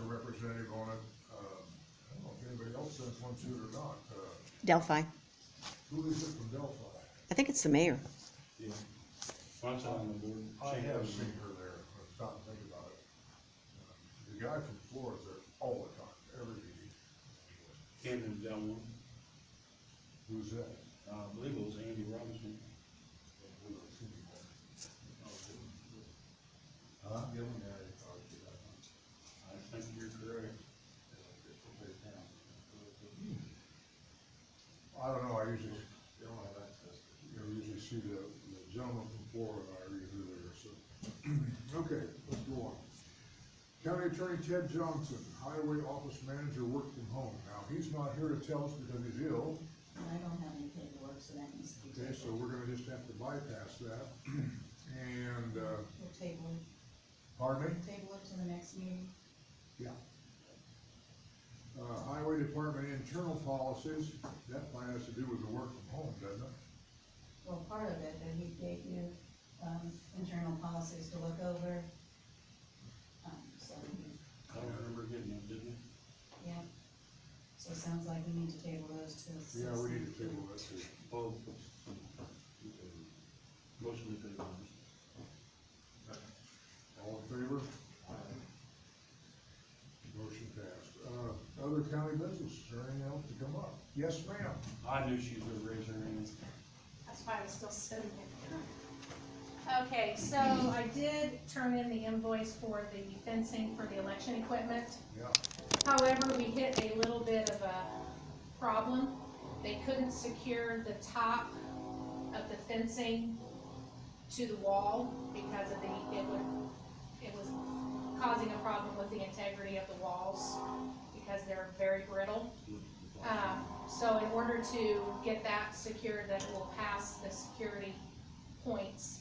um, wants it or not, uh, Delphi. who is it from Delphi? I think it's the mayor. Yeah. Once on the board. I she have was- seen her there, I stopped and think about it. Um, The guy from Florida's there all the time, every meeting, Camden down one, who's that? uh, I believe it was Andy Robinson. Who I've seen before. Huh? I think you're correct. I don't know, I usually, you know, I usually see the the gentleman from Florida, I read who they are, so. Okay, let's go on. County Attorney Ted Johnson, Highway Office Manager, work from home. Now, he's not here to tell us because he's ill, I don't have any paperwork, so that needs to be okay, so tabled. we're gonna just have to bypass that. And, uh, We'll table it, pardon me? table it to the next meeting. Yeah. Uh, Highway Department internal policies, that plan has to do with the work from home, doesn't it? Well, part of it, that he gave you, um, internal policies to look over. Um, so, I don't remember getting it, didn't it? yeah. So it sounds like we need to table those to. the Yeah, we need 16th. to table that too. Both. Motion to table. All in favor? Motion passed. Uh, other county business, is there anything else to come up? Yes, ma'am. I knew she was gonna raise her hand. That's why I was still sitting here. Okay, so I did turn in the invoice for the fencing for the election equipment. Yeah, However, we hit a little bit of a problem. They couldn't secure the top of the fencing to the wall because of the, it would, it was causing a problem with the integrity of the walls because they're very brittle. Um, so in order to get that secure, that it will pass the security points,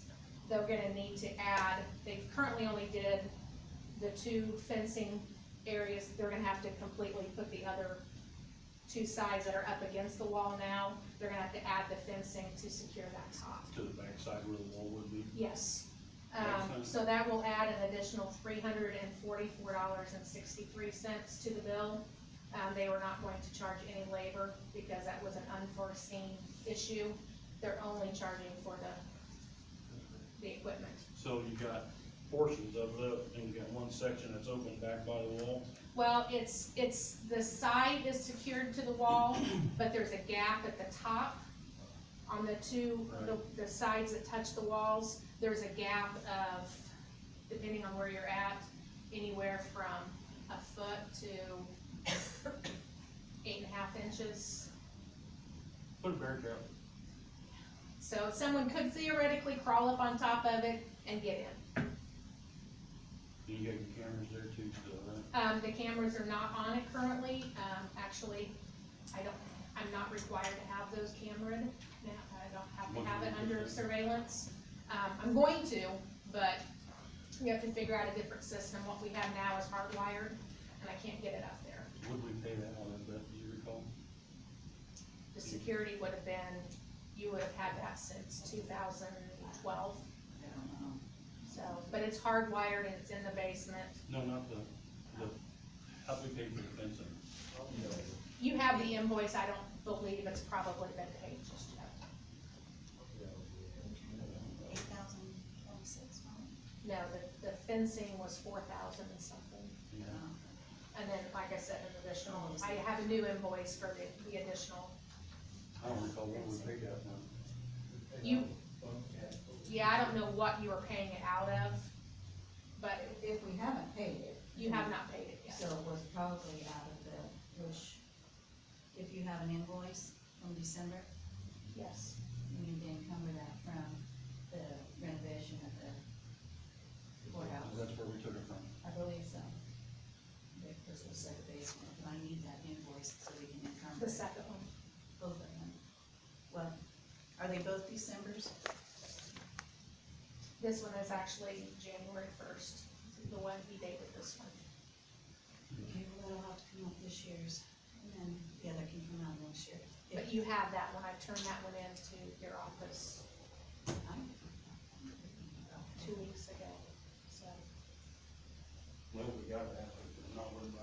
they're gonna need to add, they currently only did the two fencing areas, they're gonna have to completely put the other two sides that are up against the wall now, they're gonna have to add the fencing to secure that top. To the backside where the wall would be. Yes. Okay. Um, so that will add an additional three hundred and forty-four dollars and sixty-three cents to the bill. Um, they were not going to charge any labor because that was an unforeseen issue. They're only charging for the, the equipment. So you got portions of it, and you got one section that's open back by the wall. Well, it's, it's, the side is secured to the wall, but there's a gap at the top. On the two, the, the sides that touch the walls, there's a gap of, depending on where you're at, anywhere from a foot to eight and a half inches. Put a bear trap. So someone could theoretically crawl up on top of it and get in. You got your cameras there too, still, right? Um, the cameras are not on it currently, um, actually, I don't, I'm not required to have those camered, now, I don't have to have it under surveillance. Um, I'm going to, but we have to figure out a different system, what we have now is hardwired, and I can't get it up there. Would we pay that on it, Beth, do you recall? The security would have been, you would have had that since two thousand twelve, I don't know. so, but it's hardwired and it's in the basement. No, not the, the, how we pay for the fencing. You have the invoice, I don't believe it's probably been paid just yet. Eight thousand twenty-six, No, the, the fencing was four thousand and something, Yeah. and then, like I said, an additional, I have a new invoice for the, the additional. I don't recall what we paid that one. You, yeah, I don't know what you were paying it out of, but If we haven't paid it. you have not paid it So yet. it was probably out of the, which, if you have an invoice from December, Yes. you need to encumber that from the renovation of the courthouse. That's where we took it from. I believe so. The crystal set of basement, but I need that invoice so we can encumber The second one, both of them. What, are they both Decembers? this one is actually January first, the one he dated this one. Okay, well, that'll have to come out this year's, and then the other can come out next year. But you have that one, I turned that one in to your office I- two weeks ago, so. Well, we got that.